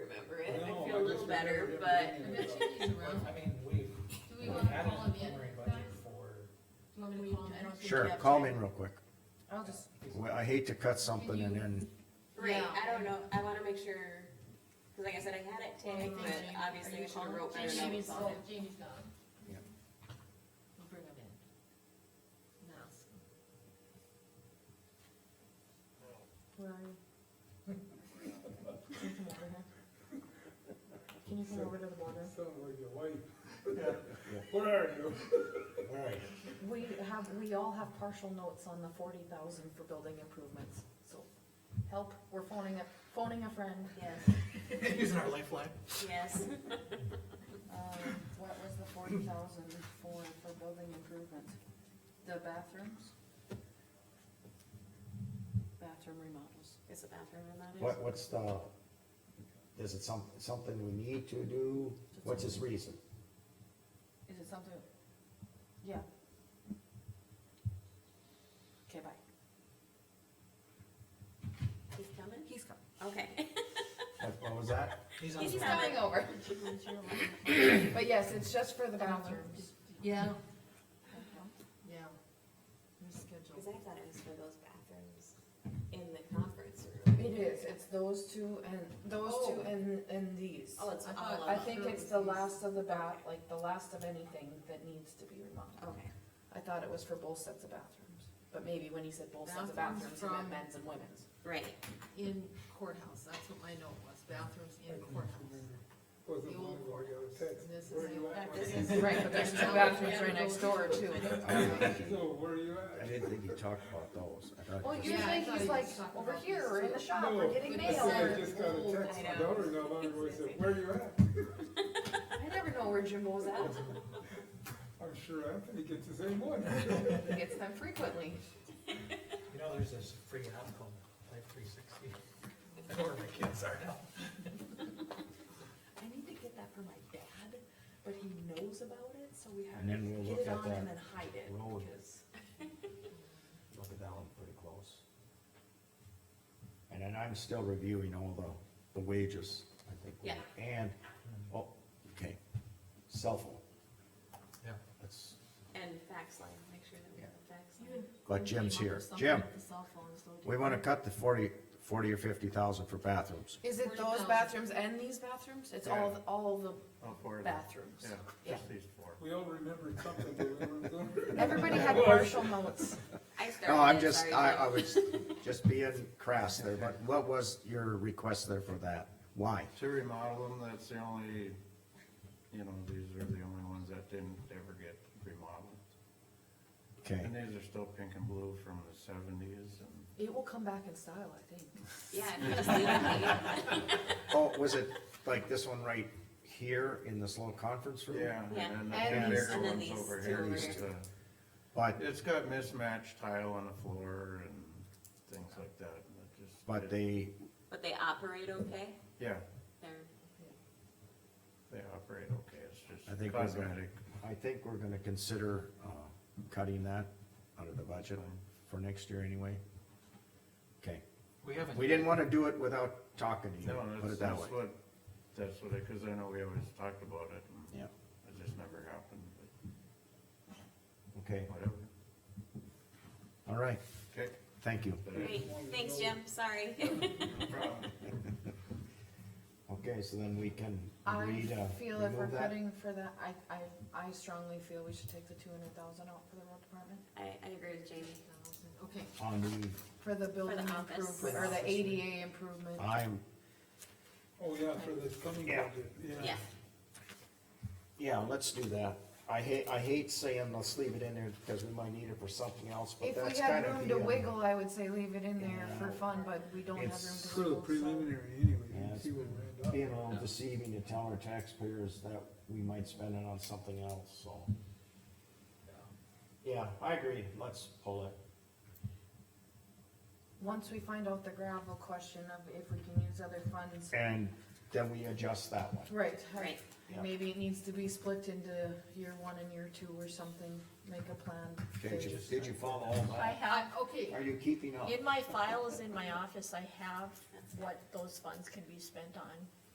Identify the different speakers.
Speaker 1: better,
Speaker 2: but-
Speaker 3: I mean, we've,
Speaker 4: Do we
Speaker 3: we've
Speaker 4: wanna
Speaker 3: added
Speaker 4: call
Speaker 3: a
Speaker 4: him yet?
Speaker 3: preliminary budget for,
Speaker 4: Do you want me to call him? I don't think
Speaker 5: Sure,
Speaker 4: we have
Speaker 5: call
Speaker 4: time.
Speaker 5: him in real quick.
Speaker 6: I'll just,
Speaker 5: Well, I hate to cut something and then,
Speaker 1: Right,
Speaker 4: Yeah.
Speaker 1: I don't know, I wanna make sure, cause like I said, I had it tagged,
Speaker 4: Well,
Speaker 1: but
Speaker 4: Jamie-
Speaker 1: obviously
Speaker 4: are
Speaker 1: we
Speaker 4: you
Speaker 1: should have
Speaker 4: calling?
Speaker 1: wrote better
Speaker 4: Jamie's
Speaker 1: notes on
Speaker 4: gone,
Speaker 1: it.
Speaker 4: Jamie's gone.
Speaker 5: Yeah.
Speaker 4: We'll bring him in. Now.
Speaker 6: where are you? Can you come over here? Can you come over to the border?
Speaker 2: Sound like your wife. What are you?
Speaker 3: where are you?
Speaker 6: We have, we all have partial notes on the forty thousand for building improvements, so help, we're phoning a, phoning a friend.
Speaker 1: Yes,
Speaker 3: Using our lifeline.
Speaker 1: yes,
Speaker 6: Um, what was the forty thousand for, for building improvements? The bathrooms? Bathroom remodels.
Speaker 1: is the bathroom in that?
Speaker 5: what, what's the, is it some, something we need to do? What's his reason?
Speaker 6: Is it something? Yeah. Okay, bye.
Speaker 1: He's coming?
Speaker 6: He's coming.
Speaker 1: Okay.
Speaker 5: What, what was that?
Speaker 3: He's on
Speaker 1: He's
Speaker 3: the
Speaker 1: not- coming
Speaker 6: over. But yes, it's just for the bathrooms.
Speaker 4: Yeah. Yeah. Reschedule.
Speaker 1: Cause I thought it was for those bathrooms in the conference room.
Speaker 6: It is, it's those two and, those two and, and these.
Speaker 1: Oh, it's all
Speaker 4: I
Speaker 1: of
Speaker 6: Oh. I
Speaker 1: them.
Speaker 6: think it's the last of the bat, like the last of anything that needs to be remodeled.
Speaker 1: Okay,
Speaker 6: I thought it was for both sets of bathrooms, but maybe when he said both sets of
Speaker 4: Bathrooms
Speaker 6: bathrooms, he meant
Speaker 4: from-
Speaker 6: men's and women's.
Speaker 1: right,
Speaker 4: In courthouse, that's what my note was, bathrooms in courthouse.
Speaker 2: Was it
Speaker 4: The old
Speaker 2: one where I got a text?
Speaker 4: This is
Speaker 2: Where you
Speaker 4: the-
Speaker 2: at?
Speaker 4: This
Speaker 2: Where you
Speaker 4: is- Right, but there's two bathrooms right next door,
Speaker 6: too.
Speaker 5: I didn't think
Speaker 2: at?
Speaker 5: he-
Speaker 2: So where you
Speaker 5: I
Speaker 2: at?
Speaker 5: didn't think he talked about those. I thought
Speaker 6: Well,
Speaker 5: he
Speaker 4: you-
Speaker 5: just-
Speaker 4: Yeah, I
Speaker 6: usually
Speaker 4: thought he
Speaker 6: he's like
Speaker 4: was talking
Speaker 6: over
Speaker 4: about
Speaker 6: here
Speaker 4: this,
Speaker 6: or in the
Speaker 4: too.
Speaker 6: shop
Speaker 2: No,
Speaker 6: or getting
Speaker 4: but
Speaker 2: I
Speaker 6: mail.
Speaker 2: said I
Speaker 4: Mail.
Speaker 2: just got a text,
Speaker 1: I
Speaker 2: my
Speaker 1: know.
Speaker 2: daughter-in-law, my daughter said, where you at?
Speaker 6: I never know where Jim goes out.
Speaker 2: I'm sure Anthony gets the same one.
Speaker 6: He gets them frequently.
Speaker 3: You know, there's this free app called Life three sixty. I know where my kids are now.
Speaker 6: I need to get that for my dad, but he knows about it, so we have
Speaker 5: And then we'll
Speaker 6: to
Speaker 5: look
Speaker 6: get it
Speaker 5: at
Speaker 6: on and
Speaker 5: that,
Speaker 6: then hide it.
Speaker 5: road.
Speaker 6: because-
Speaker 5: look at that one pretty close. And then I'm still reviewing all the, the wages, I think. we-
Speaker 1: Yeah.
Speaker 5: And,
Speaker 2: Hmm.
Speaker 5: oh, okay, cell phone,
Speaker 3: Yeah.
Speaker 5: that's,
Speaker 1: and fax line, make sure that we have a fax line.
Speaker 5: but Jim's here. Jim, we wanna cut the forty, forty or fifty thousand for bathrooms.
Speaker 6: Is it those
Speaker 4: 40,000.
Speaker 6: bathrooms and these bathrooms? It's all,
Speaker 7: Yeah.
Speaker 6: all the
Speaker 7: Oh, four of them.
Speaker 6: bathrooms.
Speaker 7: Yeah,
Speaker 6: Yeah.
Speaker 7: just these four.
Speaker 2: We all remembered something, but we don't remember.
Speaker 6: Everybody had partial notes.
Speaker 1: I started.
Speaker 5: No, I'm
Speaker 1: it,
Speaker 5: just,
Speaker 1: sorry,
Speaker 5: I,
Speaker 1: Jim.
Speaker 5: I was just being crass there, but what was your request there for that? Why?
Speaker 7: To remodel them, that's the only, you know, these are the only ones that didn't ever get remodeled.
Speaker 5: Okay,
Speaker 7: And these are still pink and blue from the seventies and
Speaker 6: It will come back in style, I think.
Speaker 1: Yeah, and just leave it be.
Speaker 5: oh, was it like this one right here in this little conference room?
Speaker 7: Yeah,
Speaker 1: Yeah.
Speaker 6: And
Speaker 7: and then the
Speaker 6: these-
Speaker 7: bigger
Speaker 1: and then
Speaker 7: ones
Speaker 1: these
Speaker 7: over
Speaker 1: two
Speaker 7: here,
Speaker 1: over
Speaker 7: it's,
Speaker 1: here.
Speaker 7: uh,
Speaker 5: But,
Speaker 7: it's got mismatched tile on the floor and things like that, and it just.
Speaker 5: but they,
Speaker 1: But they operate okay?
Speaker 7: Yeah,
Speaker 1: They're,
Speaker 7: they operate okay, it's
Speaker 5: I
Speaker 7: just
Speaker 5: think we're gonna-
Speaker 7: cosmetic.
Speaker 5: I think we're gonna consider, uh, cutting that out of the budget for next year anyway. Okay,
Speaker 3: We haven't.
Speaker 5: we didn't wanna do it without talking to you,
Speaker 7: No,
Speaker 5: put
Speaker 7: that's,
Speaker 5: it that way.
Speaker 7: that's what, that's what, I- cause I know we always talked about it and.
Speaker 5: Yeah,
Speaker 7: It just never happened, but
Speaker 5: okay,
Speaker 7: whatever.
Speaker 5: all right,
Speaker 7: Okay.
Speaker 5: thank you.
Speaker 1: great, thanks, Jim, sorry.
Speaker 5: Okay, so then we can
Speaker 6: I
Speaker 5: read, uh,
Speaker 6: feel if we're
Speaker 5: remove that.
Speaker 6: cutting for that, I, I, I strongly feel we should take the two hundred thousand out for the road department.
Speaker 1: I, I agree with Jamie.
Speaker 4: Okay,
Speaker 5: on the,
Speaker 6: For the building
Speaker 1: office.
Speaker 6: improvement, or the ADA improvement.
Speaker 5: I'm,
Speaker 2: Oh, yeah, for the coming
Speaker 5: Yeah.
Speaker 2: budget,
Speaker 1: Yeah,
Speaker 5: yeah, let's do that. I hate, I hate saying let's leave it in there because we might need it for something else, but
Speaker 6: If
Speaker 5: that's
Speaker 6: we
Speaker 5: kind
Speaker 6: had
Speaker 5: of
Speaker 6: room
Speaker 5: the.
Speaker 6: to
Speaker 5: uh,
Speaker 6: wiggle, I would say leave it in there for
Speaker 5: Yeah.
Speaker 6: fun, but we don't have room to wiggle.
Speaker 5: It's
Speaker 2: For the
Speaker 6: so-
Speaker 2: preliminary anyway, you
Speaker 5: Yeah,
Speaker 2: can see what we're at.
Speaker 5: Being all deceiving to tell our taxpayers that we might spend it on something else, so. Yeah, I agree, let's pull it.
Speaker 6: Once we find out the gravel question of if we can use other funds.
Speaker 5: And then we adjust that one.
Speaker 6: Right. I-
Speaker 1: right,
Speaker 5: Yeah.
Speaker 6: Maybe it needs to be split into year one and year two or something, make a plan.
Speaker 5: Did you,
Speaker 6: There's-
Speaker 5: did you follow all
Speaker 8: I
Speaker 5: that?
Speaker 8: have,
Speaker 4: Uh, okay,
Speaker 5: Are you keeping up?
Speaker 8: in my files in my office, I have what those funds can be spent on.